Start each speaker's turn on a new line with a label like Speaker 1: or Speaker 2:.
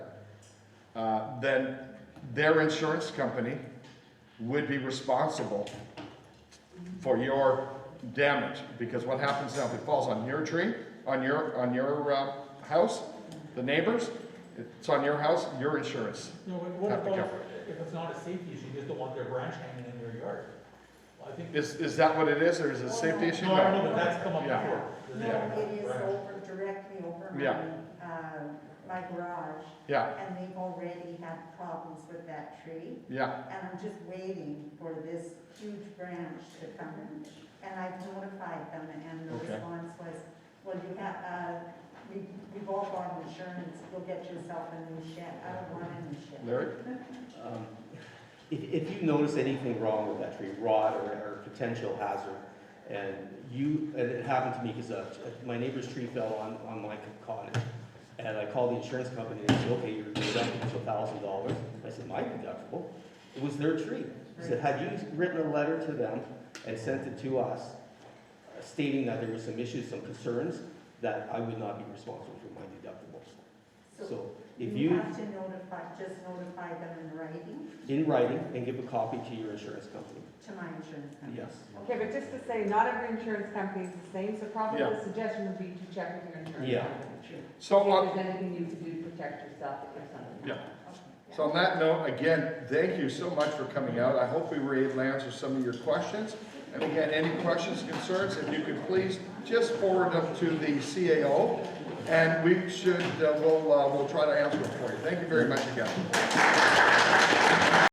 Speaker 1: uh, then their insurance company would be responsible for your damage, because what happens now, if it falls on your tree, on your, on your, uh, house, the neighbors, it's on your house, your insurance.
Speaker 2: No, but what
Speaker 1: Have to
Speaker 2: about
Speaker 1: cover
Speaker 2: if it's not a safety issue, you just don't want their branch hanging in your yard? Well, I think,
Speaker 1: Is, is that what it is, or is it a safety issue?
Speaker 2: no, I don't know, but that's come up
Speaker 1: Yeah.
Speaker 2: before.
Speaker 3: No,
Speaker 1: Yeah.
Speaker 3: it is
Speaker 2: Branch.
Speaker 3: over, directly over my,
Speaker 1: Yeah.
Speaker 3: um, my garage,
Speaker 1: Yeah,
Speaker 3: and they've already had problems with that tree.
Speaker 1: yeah,
Speaker 3: And I'm just waiting for this huge branch to come in, and I've notified them, and the
Speaker 1: Okay.
Speaker 3: response was, well, you have, uh, we, we've all got insurance, you'll get yourself a new shed, I don't want a new shed.
Speaker 1: Larry?
Speaker 4: Um, If, if you notice anything wrong with that tree, rot or, or potential hazard, and you, and it happened to me because my neighbor's tree fell on, on my cottage. And I called the insurance company and they said, okay, your deductible's a thousand dollars. I said, my deductible? It was their tree. I said, had you written a letter to them and sent it to us stating that there were some issues, some concerns, that I would not be responsible for my deductible?
Speaker 3: So
Speaker 4: So if you.
Speaker 3: have to notify, just notify them in writing
Speaker 4: in writing and give a copy to your insurance company.
Speaker 3: to my insurance company.
Speaker 4: Yes.
Speaker 5: Okay, but just to say, not every insurance company is the same, so probably
Speaker 1: Yeah.
Speaker 5: the suggestion would be to check with your
Speaker 4: Yeah.
Speaker 5: insurance company.
Speaker 1: So uh, on,
Speaker 5: If there's anything you can do to protect yourself if something.
Speaker 1: Yeah. So on that note, again, thank you so much for coming out. I hope we were able to answer some of your questions. And again, any questions, concerns, if you could please just forward them to the CAO, and we should, uh, we'll, uh, we'll try to answer them for you. Thank you very much again.